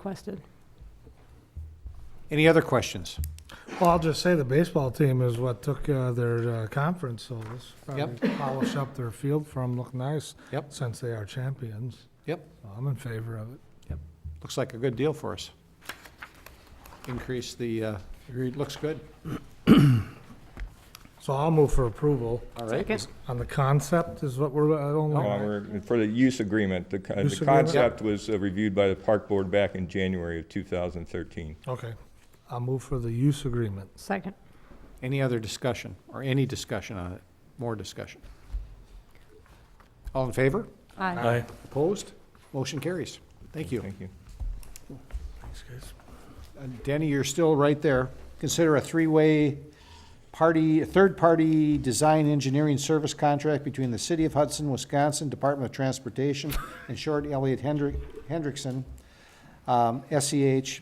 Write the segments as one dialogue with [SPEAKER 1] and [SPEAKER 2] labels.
[SPEAKER 1] requested.
[SPEAKER 2] Any other questions?
[SPEAKER 3] Well, I'll just say the baseball team is what took uh, their uh, conference, so this
[SPEAKER 2] Yep.
[SPEAKER 3] probably polish up their field for them, look nice.
[SPEAKER 2] Yep.
[SPEAKER 3] Since they are champions.
[SPEAKER 2] Yep.
[SPEAKER 3] I'm in favor of it.
[SPEAKER 2] Looks like a good deal for us. Increase the, uh, agreed, looks good.
[SPEAKER 3] So I'll move for approval
[SPEAKER 2] All right.
[SPEAKER 1] Second.
[SPEAKER 3] on the concept is what we're, I don't
[SPEAKER 4] No,
[SPEAKER 3] know.
[SPEAKER 4] we're- For the use agreement, the con-
[SPEAKER 3] Use
[SPEAKER 4] the
[SPEAKER 3] agreement?
[SPEAKER 4] concept was uh, reviewed by the park board back in January of 2013.
[SPEAKER 3] Okay, I'll move for the use agreement.
[SPEAKER 1] Second.
[SPEAKER 2] Any other discussion, or any discussion on it? More discussion? All in favor?
[SPEAKER 1] Aye.
[SPEAKER 2] Opposed? Motion carries. Thank you.
[SPEAKER 4] Thank you.
[SPEAKER 3] Thanks, guys.
[SPEAKER 2] Uh, Danny, you're still right there. Consider a three-way party, a third-party design engineering service contract between the City of Hudson, Wisconsin, Department of Transportation, and Short Elliott Hendrick, Hendrickson, um, SEH,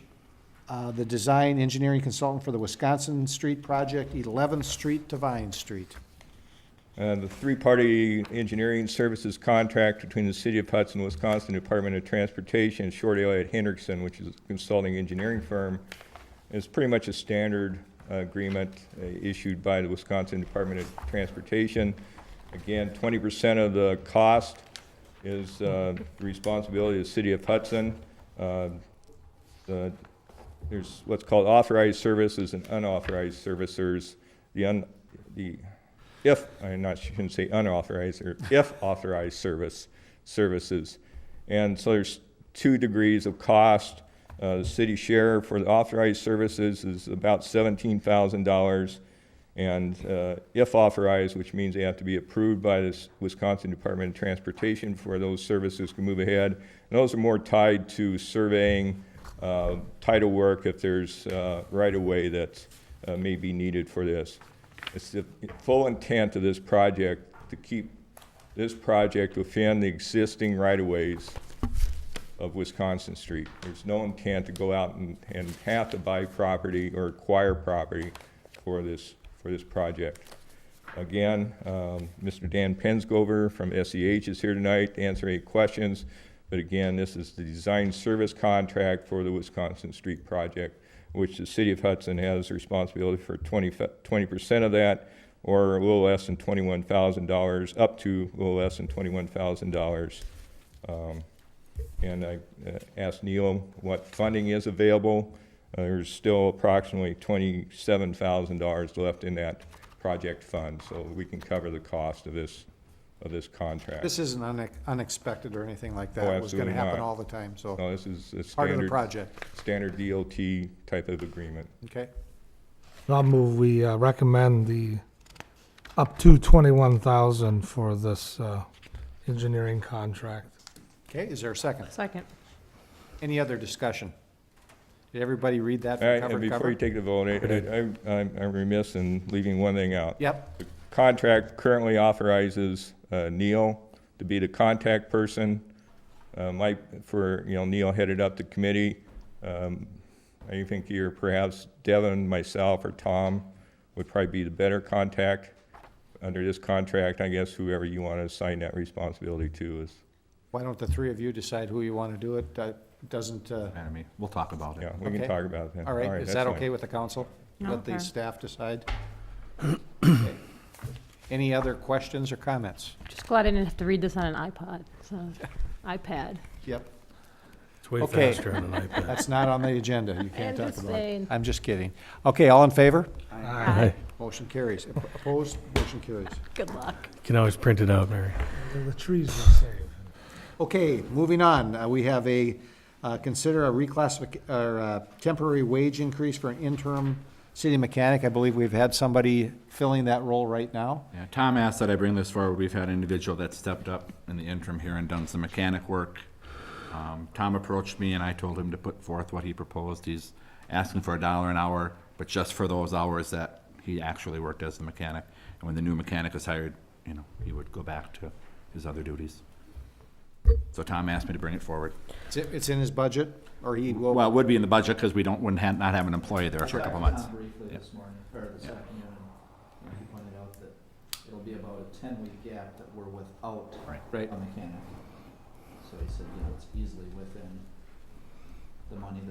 [SPEAKER 2] uh, the design engineering consultant for the Wisconsin Street Project, 11th Street to Vine Street.
[SPEAKER 4] Uh, The three-party engineering services contract between the City of Hudson, Wisconsin Department of Transportation and Short Elliott Hendrickson, which is a consulting engineering firm, is pretty much a standard uh, agreement uh, issued by the Wisconsin Department of Transportation. Again, 20% of the cost is uh, the responsibility of the City of Hudson. Uh, the there's what's called authorized services and unauthorized servicers. The un, the, if, I'm not, shouldn't say unauthorized, or if authorized service, services. And so there's two degrees of cost. Uh, the city share for the authorized services is about seventeen thousand dollars. And uh, if authorized, which means they have to be approved by the Wisconsin Department of Transportation for those services to move ahead. And those are more tied to surveying, uh, title work, if there's uh, right-of-way that uh, may be needed for this. It's the full intent of this project to keep this project within the existing right-of-ways of Wisconsin Street. There's no intent to go out and, and have to buy property or acquire property for this, for this project. Again, um, Mr. Dan Pensgover from SEH is here tonight to answer any questions. But again, this is the design service contract for the Wisconsin Street project, which the city of Hudson has responsibility for 20 percent of that, or a little less than twenty-one thousand dollars, up to a little less than twenty-one thousand dollars. And I uh, asked Neil what funding is available. Uh, There's still approximately twenty-seven thousand dollars left in that project fund, so we can cover the cost of this, of this contract.
[SPEAKER 2] This isn't unex- unexpected or anything like that.
[SPEAKER 4] Oh,
[SPEAKER 2] It was going to
[SPEAKER 4] absolutely
[SPEAKER 2] happen
[SPEAKER 4] not.
[SPEAKER 2] all the time, so
[SPEAKER 4] No, this is a
[SPEAKER 2] part of the
[SPEAKER 4] standard,
[SPEAKER 2] project,
[SPEAKER 4] standard DOT type of agreement.
[SPEAKER 2] okay?
[SPEAKER 3] I'll move, we uh, recommend the up to twenty-one thousand for this uh, engineering contract.
[SPEAKER 2] Okay, is there a second?
[SPEAKER 1] Second.
[SPEAKER 2] Any other discussion? Did everybody read that
[SPEAKER 4] All
[SPEAKER 2] from
[SPEAKER 4] right,
[SPEAKER 2] cover
[SPEAKER 4] and
[SPEAKER 2] to
[SPEAKER 4] before
[SPEAKER 2] cover?
[SPEAKER 4] you take the vote, I- I- I'm I'm remiss in leaving one thing out.
[SPEAKER 2] Yep,
[SPEAKER 4] The contract currently authorizes uh, Neil to be the contact person. Uh, Mike, for, you know, Neil headed up the committee. Um, I think you're perhaps Devin, myself, or Tom would probably be the better contact. Under this contract, I guess whoever you want to assign that responsibility to is,
[SPEAKER 2] why don't the three of you decide who you want to do it? Uh, Doesn't, uh,
[SPEAKER 5] I mean, we'll talk about it.
[SPEAKER 4] yeah, we can
[SPEAKER 2] Okay.
[SPEAKER 4] talk about that.
[SPEAKER 2] all right, is that
[SPEAKER 4] that's fine.
[SPEAKER 2] okay with the council? Let the
[SPEAKER 1] Okay.
[SPEAKER 2] staff decide? Okay. Any other questions or comments?
[SPEAKER 1] Just glad I didn't have to read this on an iPod, so, iPad.
[SPEAKER 2] Yep,
[SPEAKER 6] It's way
[SPEAKER 2] Okay.
[SPEAKER 6] faster on an iPad.
[SPEAKER 2] that's not on the agenda, you can't talk about it.
[SPEAKER 1] Understand.
[SPEAKER 2] I'm just kidding. Okay, all in favor?
[SPEAKER 1] Aye.
[SPEAKER 2] Motion carries. Opposed? Motion carries.
[SPEAKER 1] Good luck.
[SPEAKER 6] You can always print it out, Mary.
[SPEAKER 3] The trees will save.
[SPEAKER 2] Okay, moving on, Uh, we have a, uh, consider a reclassific, or uh, temporary wage increase for an interim city mechanic. I believe we've had somebody filling that role right now.
[SPEAKER 5] Yeah, Tom asked that I bring this forward. We've had an individual that stepped up in the interim here and done some mechanic work. Um, Tom approached me and I told him to put forth what he proposed. He's asking for a dollar an hour, but just for those hours that he actually worked as the mechanic. And when the new mechanic is hired, you know, he would go back to his other duties. So Tom asked me to bring it forward.
[SPEAKER 2] It's, it's in his budget, or he will.
[SPEAKER 5] Well, it would be in the budget because we don't, wouldn't have, not have an employee there for a couple months.
[SPEAKER 7] Tom briefly this morning, or this afternoon, and he pointed out that it'll be about a ten-week gap that we're without
[SPEAKER 5] Right.
[SPEAKER 2] Right.
[SPEAKER 7] a mechanic. So he said, you know, it's easily within the money that